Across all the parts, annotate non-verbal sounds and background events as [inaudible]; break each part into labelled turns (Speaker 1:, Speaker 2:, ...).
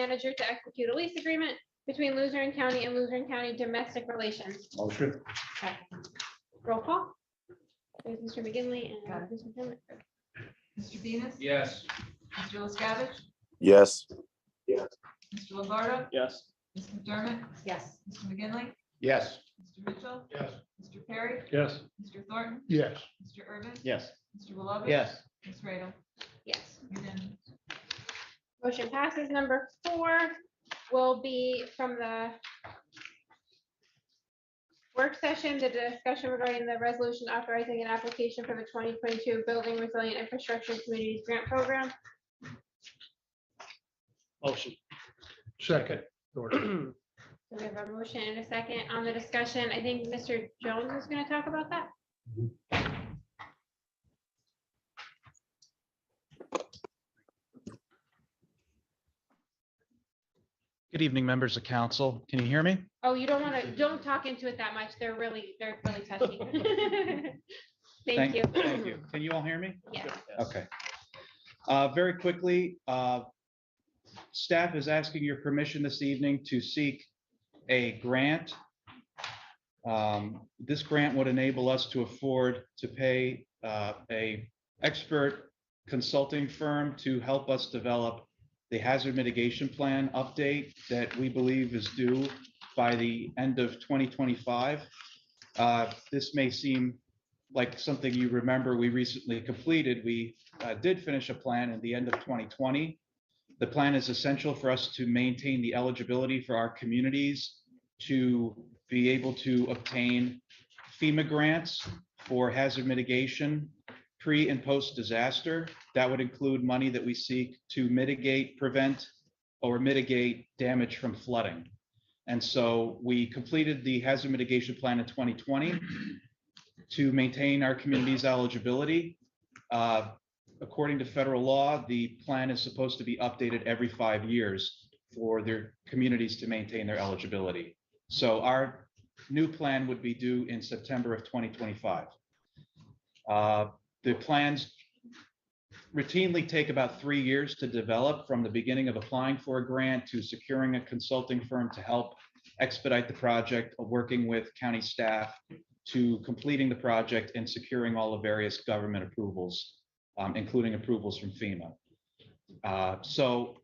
Speaker 1: manager to execute a lease agreement between Luzerne County and Luzerne County Domestic Relations.
Speaker 2: Motion.
Speaker 1: Roll call. There's Mr. McGinley
Speaker 3: Got
Speaker 1: and Mr. Finley.
Speaker 3: Mr. Venus?
Speaker 2: Yes.
Speaker 3: Mr. LaScavitch?
Speaker 4: yes,
Speaker 3: Mr. Lombardo?
Speaker 2: Yes.
Speaker 3: Ms. McDermott?
Speaker 1: Yes.
Speaker 3: Mr. McGinley?
Speaker 2: Yes.
Speaker 3: Mr. Mitchell?
Speaker 2: Yes.
Speaker 3: Mr. Perry?
Speaker 2: Yes.
Speaker 3: Mr. Thornton?
Speaker 2: Yes.
Speaker 3: Mr. Urban?
Speaker 2: Yes.
Speaker 3: Mr. Willoughby?
Speaker 2: Yes.
Speaker 3: Ms. Radel?
Speaker 1: Yes.
Speaker 3: Unanimous.
Speaker 1: Motion passes. Number four will be from the work session, the discussion regarding the resolution authorizing an application for the 2022 Building Resilient Infrastructure Communities Grant Program.
Speaker 2: Motion. Second.
Speaker 1: So we have a motion and a second on the discussion. I think Mr. Jones is going to talk about that.
Speaker 5: Good evening, members of council. Can you hear me?
Speaker 1: Oh, you don't want to, don't talk into it that much. They're really, they're really touchy. [laughs] Thank you.
Speaker 5: Thank you. Can you all hear me?
Speaker 1: Yes.
Speaker 5: Okay. Uh, Very quickly, uh, staff is asking your permission this evening to seek a grant. Um, This grant would enable us to afford to pay uh, a expert consulting firm to help us develop the hazard mitigation plan update that we believe is due by the end of 2025. Uh, This may seem like something you remember we recently completed, we uh, did finish a plan in the end of 2020. The plan is essential for us to maintain the eligibility for our communities to be able to obtain FEMA grants for hazard mitigation pre and post disaster. That would include money that we seek to mitigate, prevent, or mitigate damage from flooding. And so we completed the hazard mitigation plan in 2020 to maintain our community's eligibility. Uh, According to federal law, the plan is supposed to be updated every five years for their communities to maintain their eligibility. So our new plan would be due in September of 2025. Uh, The plans routinely take about three years to develop from the beginning of applying for a grant to securing a consulting firm to help expedite the project, working with county staff to completing the project and securing all the various government approvals, um, including approvals from FEMA. Uh, So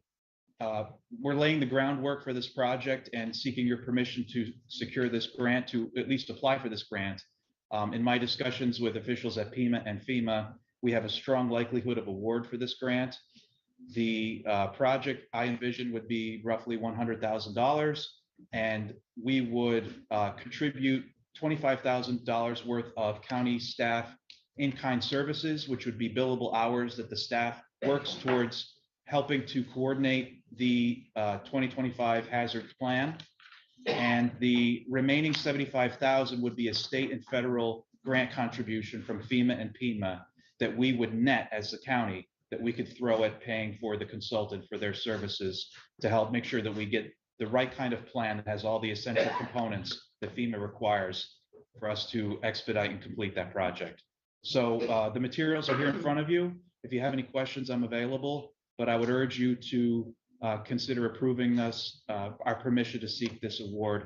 Speaker 5: uh, we're laying the groundwork for this project and seeking your permission to secure this grant, to at least apply for this grant. Um, In my discussions with officials at Pima and FEMA, we have a strong likelihood of award for this grant. The uh, project I envision would be roughly $100,000. And we would uh, contribute twenty-five thousand dollars worth of county staff in-kind services, which would be billable hours that the staff works towards helping to coordinate the uh, twenty twenty-five hazard plan. And the remaining seventy-five thousand would be a state and federal grant contribution from FEMA and PEMA that we would net as the county, that we could throw at paying for the consultant for their services to help make sure that we get the right kind of plan that has all the essential components that FEMA requires for us to expedite and complete that project. So uh, the materials are here in front of you. If you have any questions, I'm available, but I would urge you to uh, consider approving us, uh, our permission to seek this award.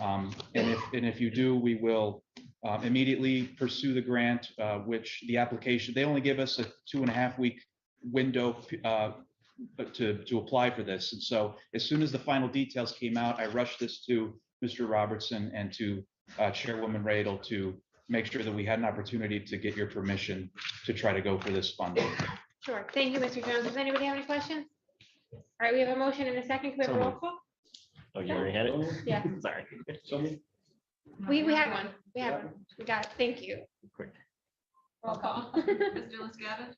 Speaker 5: Um, And if, and if you do, we will uh, immediately pursue the grant, uh, which the application, they only give us a two and a half week window uh, but to, to apply for this. And so as soon as the final details came out, I rushed this to Mr. Robertson and to uh, Chairwoman Radel to make sure that we had an opportunity to get your permission to try to go for this funding.
Speaker 1: Sure. Thank you, Mr. Jones. Does anybody have any questions? All right, we have a motion and a second. Can we have a roll call?
Speaker 6: Oh, you already had it?
Speaker 1: Yeah.
Speaker 6: Sorry.
Speaker 1: We, we have one. We have one. We got it. Thank you.
Speaker 6: Quick.
Speaker 1: Roll [laughs] call.
Speaker 3: Mr. LaScavitch?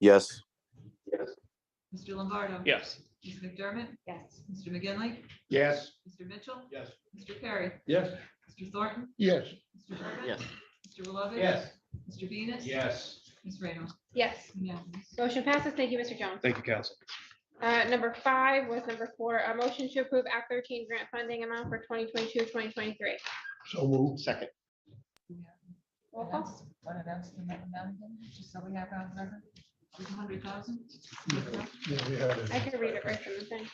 Speaker 4: yes,
Speaker 3: Mr. Lombardo?
Speaker 6: Yes.
Speaker 3: Ms. McDermott?
Speaker 1: Yes.
Speaker 3: Mr. McGinley?
Speaker 2: Yes.
Speaker 3: Mr. Mitchell?
Speaker 2: Yes.
Speaker 3: Mr. Perry?
Speaker 2: Yes.
Speaker 3: Mr. Thornton?
Speaker 2: Yes.
Speaker 3: Mr. Urban?
Speaker 6: Yes.
Speaker 3: Mr. Willoughby? Mr. Venus?
Speaker 2: Yes.
Speaker 3: Ms. Radel?
Speaker 1: Yes.
Speaker 3: Unanimous.
Speaker 1: Motion passes. Thank you, Mr. Jones.
Speaker 5: Thank you, council.
Speaker 1: Uh, number five was number four, a motion to approve Act thirteen grant funding amount for 2022-2023.
Speaker 2: So moved. Second.
Speaker 1: Roll call.
Speaker 3: What announced in that amount again, just so we have on record? It was a hundred thousand?
Speaker 2: Yeah, we had it.
Speaker 1: I can read it right from the thing.